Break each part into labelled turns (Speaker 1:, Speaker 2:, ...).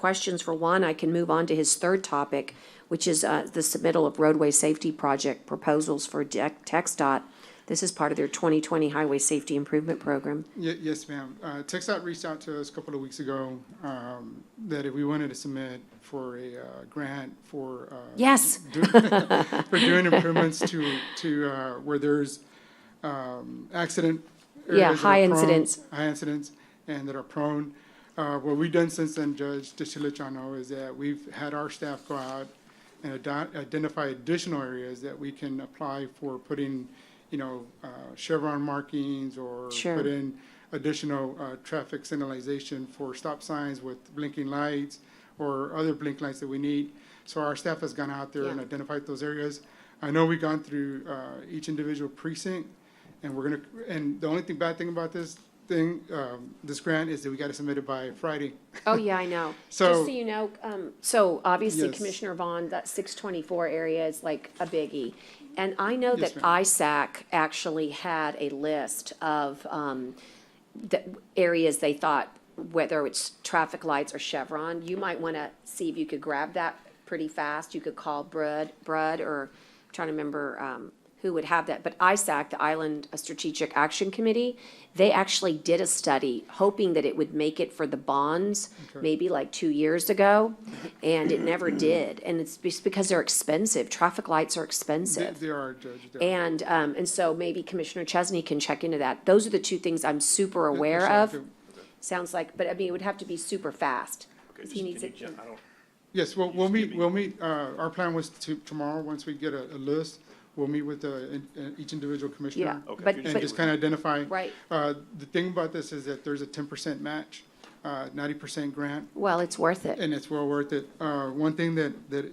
Speaker 1: questions for Juan, I can move on to his third topic, which is uh, the submittal of roadway safety project proposals for Dec- TXDOT. This is part of their 2020 Highway Safety Improvement Program.
Speaker 2: Ye- yes, ma'am. Uh, TechStop reached out to us a couple of weeks ago, um, that if we wanted to submit for a, uh, grant for, uh.
Speaker 1: Yes.
Speaker 2: do- For doing improvements to, to, uh, where there's, um, accident.
Speaker 1: Yeah,
Speaker 2: areas that
Speaker 1: high
Speaker 2: are prone-
Speaker 1: incidents.
Speaker 2: High incidents and that are prone. Uh, what we've done since then, Judge, just to let y'all know, is that we've had our staff go out and ado- identify additional areas that we can apply for putting, you know, uh, chevron markings or
Speaker 1: Sure.
Speaker 2: put in additional uh, traffic signalization for stop signs with blinking lights or other blink lights that we need. So our staff has gone out there and
Speaker 1: Yeah.
Speaker 2: identified those areas. I know we've gone through uh, each individual precinct, and we're gonna, and the only thing, bad thing about this thing, um, this grant, is that we gotta submit it by Friday.
Speaker 1: Oh, yeah, I know. Just
Speaker 2: So-
Speaker 1: so you know, um, so obviously
Speaker 2: Yes.
Speaker 1: Commissioner Vaughn, that six twenty-four area is like a biggie. And I know that
Speaker 2: Yes,
Speaker 1: ISAC actually had a list of, um, the areas they thought, whether it's traffic lights or Chevron, you might wanna see if you could grab that pretty fast. You could call Brud, Brud, or, I'm trying to remember, um, who would have that, but ISAC, the Island Strategic Action Committee, they actually did a study hoping that it would make it for the bonds, maybe like two years ago, and it never did. And it's just because they're expensive. Traffic lights are
Speaker 2: They
Speaker 1: expensive.
Speaker 2: they are, uh, Judge. they are.
Speaker 1: And, um, and so maybe Commissioner Chesney can check into that. Those are the two things I'm super aware
Speaker 2: Yes,
Speaker 1: of.
Speaker 2: ma'am.
Speaker 1: Sounds like, but I mean, it would have to be super fast. 'cause
Speaker 3: Just
Speaker 1: he
Speaker 3: can
Speaker 1: needs
Speaker 3: you
Speaker 1: it-
Speaker 3: ju- I don't-
Speaker 2: Yes, well, we'll meet, we'll meet, uh, our plan was to, tomorrow, once we get a, a list, we'll meet with, uh, in- uh, each individual commissioner.
Speaker 1: Yeah,
Speaker 3: Okay.
Speaker 1: but,
Speaker 2: And
Speaker 1: but-
Speaker 2: just kind of identify.
Speaker 1: Right.
Speaker 2: Uh, the thing about this is that there's a ten percent match, uh, ninety percent grant,
Speaker 1: well, it's worth it.
Speaker 2: and it's well worth it. Uh, one thing that, that,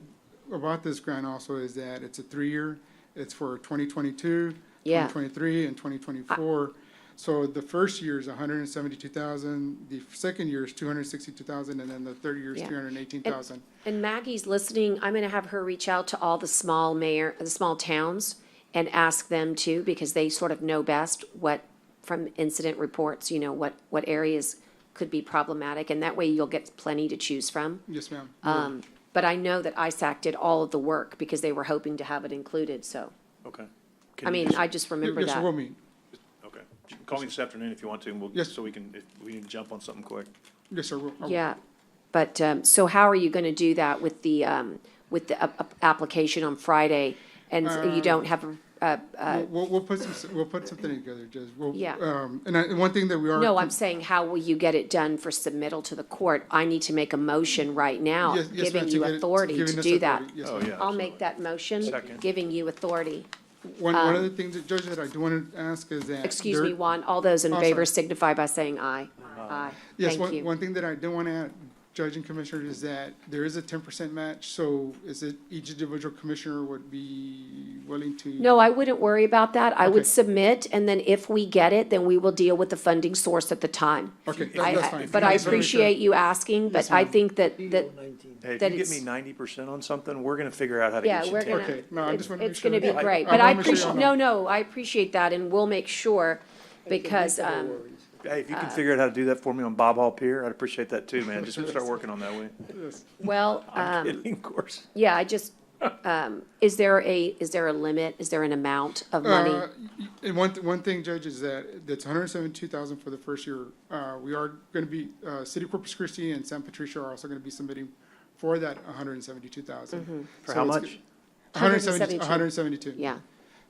Speaker 2: about this grant also is that it's a three-year, it's for twenty twenty-two,
Speaker 1: Yeah.
Speaker 2: twenty twenty-three, and twenty twenty-four. So the first year is hundred and seventy-two thousand, the second year is two hundred and sixty-two thousand, and then the third year is
Speaker 1: Yeah.
Speaker 2: three hundred and eighteen thousand.
Speaker 1: And Maggie's listening, I'm gonna have her reach out to all the small mayor, the small towns and ask them too, because they sort of know best what, from incident reports, you know, what, what areas could be problematic, and that way you'll get plenty to choose from.
Speaker 2: Yes, ma'am.
Speaker 1: Um, but I know that ISAC did all of the work because they were hoping to have it included, so,
Speaker 3: Okay.
Speaker 1: I
Speaker 3: Can you
Speaker 1: mean,
Speaker 3: just-
Speaker 1: I just remember
Speaker 2: Yes, we'll
Speaker 1: that.
Speaker 2: meet.
Speaker 3: Okay. You can Call me this afternoon if you want to, and we'll,
Speaker 2: Yes.
Speaker 3: so we can, if we need to jump on something quick.
Speaker 2: Yes, sir. we'll- I will.
Speaker 1: Yeah, but, um, so how are you gonna do that with the, um, with the up- up- application on Friday? And
Speaker 2: Uh,
Speaker 1: you don't have, a- a
Speaker 2: We'll, we'll- we'll put some, we'll put something together, Judge. We'll,
Speaker 1: Yeah.
Speaker 2: um, and I, and one thing that we are.
Speaker 1: No, I'm saying, how will you get it done for submittal to the court? I need to make a motion right now,
Speaker 2: Yes- yes, ma'am,
Speaker 1: giving
Speaker 2: to
Speaker 1: you
Speaker 2: get it-
Speaker 1: authority
Speaker 2: giving
Speaker 1: to
Speaker 2: us
Speaker 1: do that.
Speaker 2: authority. Yes,
Speaker 3: Oh,
Speaker 2: ma'am.
Speaker 3: yeah.
Speaker 1: I'll make
Speaker 3: absolutely.
Speaker 1: that motion,
Speaker 3: Second.
Speaker 1: giving you authority.
Speaker 2: One, one of the things that, Judge, that I do want to ask is that.
Speaker 1: Uh, Excuse
Speaker 2: there-
Speaker 1: me, Juan, all those in
Speaker 2: Oh,
Speaker 1: favor
Speaker 2: sorry.
Speaker 1: signify by saying aye. Aye,
Speaker 2: Yes,
Speaker 1: thank
Speaker 2: one,
Speaker 1: you.
Speaker 2: one thing that I do want to add, Judge and Commissioner, is that there is a ten percent match, so is it each individual commissioner would be willing to?
Speaker 1: No, I wouldn't worry about that. I
Speaker 2: Okay.
Speaker 1: would submit, and then if we get it, then we will deal with the funding source at the time.
Speaker 2: Okay, that-
Speaker 1: I-
Speaker 2: that's
Speaker 1: I-
Speaker 2: fine.
Speaker 1: But I
Speaker 2: Just wanna make sure.
Speaker 1: appreciate you asking, but I
Speaker 2: ma'am.
Speaker 1: think that, that,
Speaker 3: Hey, if
Speaker 1: That
Speaker 3: you get
Speaker 1: it's-
Speaker 3: me ninety percent on something, we're gonna figure out how to
Speaker 1: yeah,
Speaker 3: get you
Speaker 1: we're
Speaker 3: ten.
Speaker 1: gonna,
Speaker 2: Okay, no, I just
Speaker 1: it's
Speaker 2: wanna make
Speaker 1: it's gonna be
Speaker 2: sure.
Speaker 1: great.
Speaker 2: I
Speaker 1: But I
Speaker 2: wanna make sure
Speaker 1: appreciate, no,
Speaker 2: y'all know.
Speaker 1: no, I appreciate that, and we'll make sure, because, um,
Speaker 3: Hey, if you can figure out how to do that for me on Bob Hall Pier, I'd appreciate that too, man. Just start working on that way.
Speaker 1: Well,
Speaker 3: I'm
Speaker 1: um,
Speaker 3: kidding, of course.
Speaker 1: yeah, I just, um, is there a, is there a limit? Is there an amount of money?
Speaker 2: Uh, y- And one, th- one thing, Judge, is that that's hundred and seventy-two thousand for the first year. Uh, we are gonna be, uh, City of Corpus Christi and San Patricia are also gonna be submitting for that hundred and seventy-two
Speaker 1: Mm-hmm.
Speaker 2: thousand.
Speaker 3: For how much?
Speaker 2: hundred and seventy,
Speaker 1: 172.
Speaker 2: hundred and seventy-two.
Speaker 1: Yeah.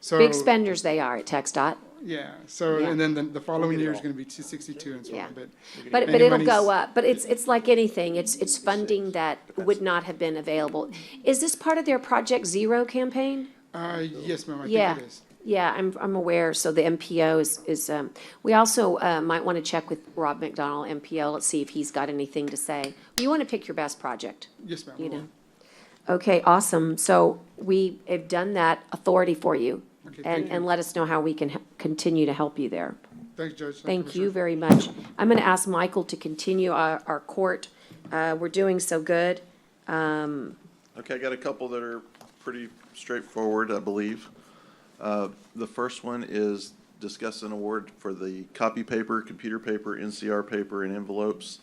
Speaker 2: So,
Speaker 1: Big spenders they are at Tech dot.
Speaker 2: yeah, so,
Speaker 1: Yeah.
Speaker 2: and then the, the following
Speaker 3: get it
Speaker 2: year is
Speaker 3: all.
Speaker 2: gonna be two sixty-two and so
Speaker 1: Yeah.
Speaker 2: on, but.
Speaker 1: But,
Speaker 2: And
Speaker 1: but
Speaker 2: the
Speaker 1: it'll go
Speaker 2: money's-
Speaker 1: up. But it's, it's like anything. It's, it's funding that would not have been available. Is this part of their Project Zero campaign?
Speaker 2: Uh, yes, ma'am, I
Speaker 1: Yeah.
Speaker 2: think it is.
Speaker 1: Yeah, I'm, I'm aware. So the MPO is, is, um, we also, uh, might want to check with Rob McDonald, MPO. Let's see if he's got anything to say. You want to pick your best project.
Speaker 2: Yes, ma'am.
Speaker 1: you
Speaker 2: we will.
Speaker 1: know. Okay, awesome. So we have done that authority for you.
Speaker 2: Okay, thank
Speaker 1: And,
Speaker 2: you.
Speaker 1: and let us know how we can h- continue to help you there.
Speaker 2: Thanks, Judge.
Speaker 1: Thank you
Speaker 2: Commissioner.
Speaker 1: very much. I'm going to ask Michael to continue our, our court. Uh, we're doing so good.
Speaker 4: Okay, I got a couple that are pretty straightforward, I believe. Uh, The first one is discuss an award for the copy paper, computer paper, NCR paper, and envelopes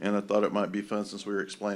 Speaker 4: And I thought it might be fun, since we were explaining